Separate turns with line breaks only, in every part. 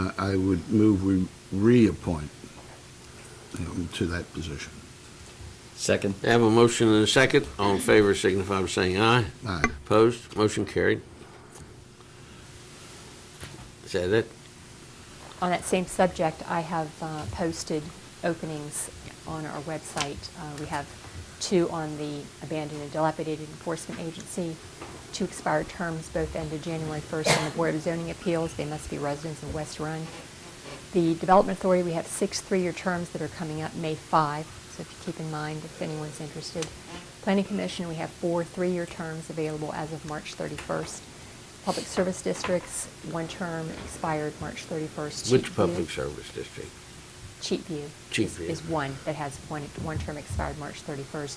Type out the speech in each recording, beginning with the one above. I- I would move we reappoint him to that position.
Second.
I have a motion and a second. All in favor signify by saying aye.
Aye.
Opposed? Motion carried. Is that it?
On that same subject, I have uh, posted openings on our website. Uh, We have two on the Abandoned and Dilapidated Enforcement Agency, two expired terms, both ended January 1st on the Board of Zoning Appeals. They must be residents of West Run. The Development Authority, we have six three-year terms that are coming up May 5, so if you keep in mind if anyone's interested. Planning Commission, we have four three-year terms available as of March 31st. Public Service Districts, one term expired March 31st.
Which
Cheapview-
public service district?
Cheapview. is-
Cheapview.
Is one that has one, one term expired March 31st.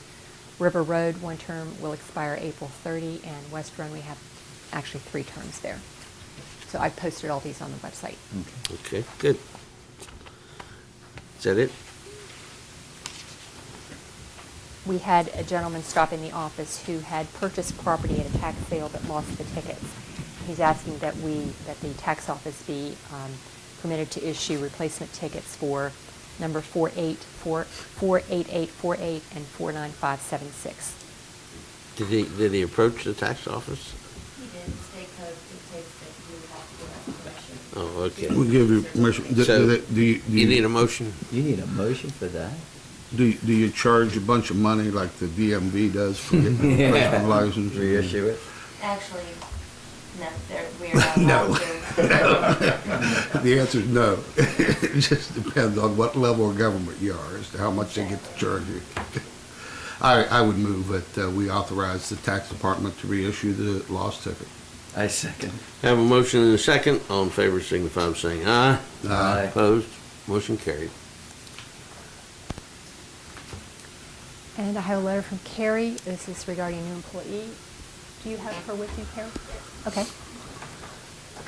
River Road, one term will expire April 30, and West Run, we have actually three terms there. So I've posted all these on the website.
Okay, good. Is that it?
we had a gentleman stop in the office who had purchased property at a tax sale but lost the tickets. He's asking that we, that the tax office be um, permitted to issue replacement tickets for number 484 48848 and 49576.
Did he, did he approach the tax office?
He did, state code dictates that you have to have
Oh, okay.
permission.
We'll give you permission. Do-
So,
do- do you- do
You need a motion?
You need a motion for that?
Do you- do you charge a bunch of money like the DMV does for getting a personal license?
Reissue it?
Actually, no, there, we are not
No.
allowed to.
The answer is no. It just depends on what level of government you are, as to how much they get to charge you. I, I would move that uh, we authorize the tax department to reissue the lost ticket.
I second.
I Have a motion and a second. All in favor signify by saying aye.
Aye.
Opposed? Motion carried.
And I have a letter from Carrie. This is regarding a new employee. Do you have her with you, Carrie? Okay.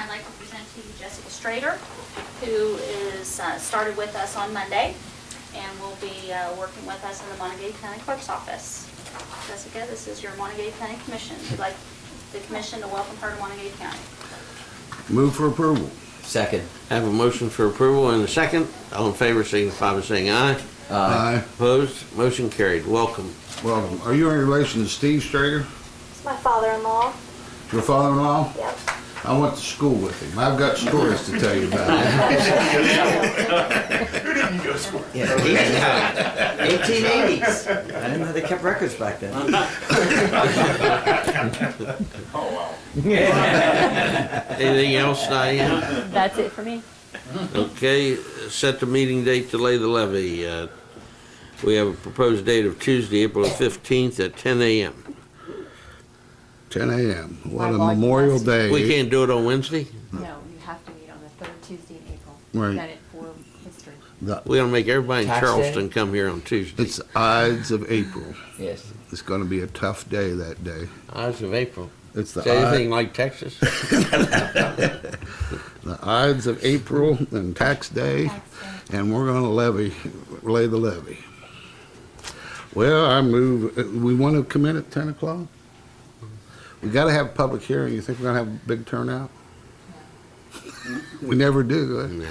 I'd like to present to you Jessica Strader, who is, uh, started with us on Monday and will be uh, working with us in the Montague County Clerk's Office. Jessica, this is your Montague County Commission. We'd like the commission to welcome her to Montague County.
Move for approval.
Second.
I Have a motion for approval and a second. All in favor signify by saying aye.
Aye.
Opposed? Motion carried. Welcome.
Well, are you in relation to Steve Strager,
It's my father-in-law.
your father-in-law?
Yep.
I went to school with him. I've got stories to tell you about him.
Eighteen eighties. I didn't know they kept records back then.
Anything else, Diane?
That's it for me.
Okay, set the meeting date to lay the levy. Uh, We have a proposed date of Tuesday, April 15th at 10 a.m.
10 a.m. What a
By law, you
Memorial
must-
Day.
We can't do it on Wednesday?
No, you have to meet on the third Tuesday in April.
Right.
Done it for history.
The-
We're gonna make everybody in
Tax day?
Charleston come here on Tuesday.
It's Ides of April.
Yes.
It's going to be a tough day that day.
Eyes of April.
It's the
Is anything like Texas?
the Ides of April and tax day, and we're gonna levy, lay the levy. Well, I move, uh, we wanna come in at ten o'clock? We gotta have a public hearing, you think we're gonna have a big turnout? We never do, eh?
No.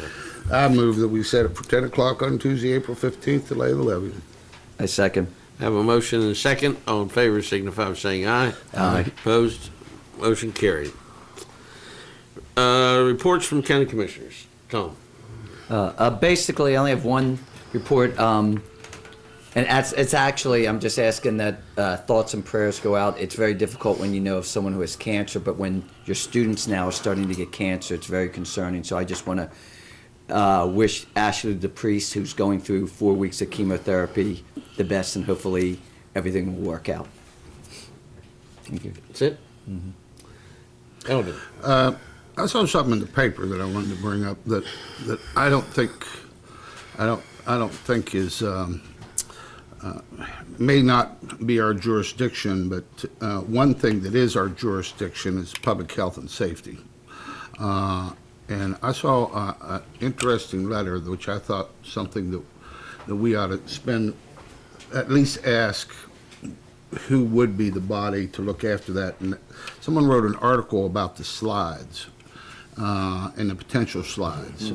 huh? I move that we set it for ten o'clock on Tuesday, April fifteenth to lay the levy.
I second.
Have a motion and a second. All in favor signify by saying aye.
Aye.
Opposed? Motion carried. Uh, reports from county commissioners. Tom?
Uh, uh, basically, I only have one report, um, and that's, it's actually, I'm just asking that uh, thoughts and prayers go out. It's very difficult when you know of someone who has cancer, but when your students now are starting to get cancer, it's very concerning. So I just want to uh, wish Ashley the priest, who's going through four weeks of chemotherapy, the best, and hopefully everything will work out. Thank you.
That's it? Eldon?
I saw something in the paper that I wanted to bring up that, that I don't think, I don't, I don't think is, um, uh, may not be our jurisdiction, but uh, one thing that is our jurisdiction is public health and safety. Uh, And I saw an interesting letter, which I thought something that, that we ought to spend, at least ask who would be the body to look after that. And someone wrote an article about the slides uh, and the potential slides.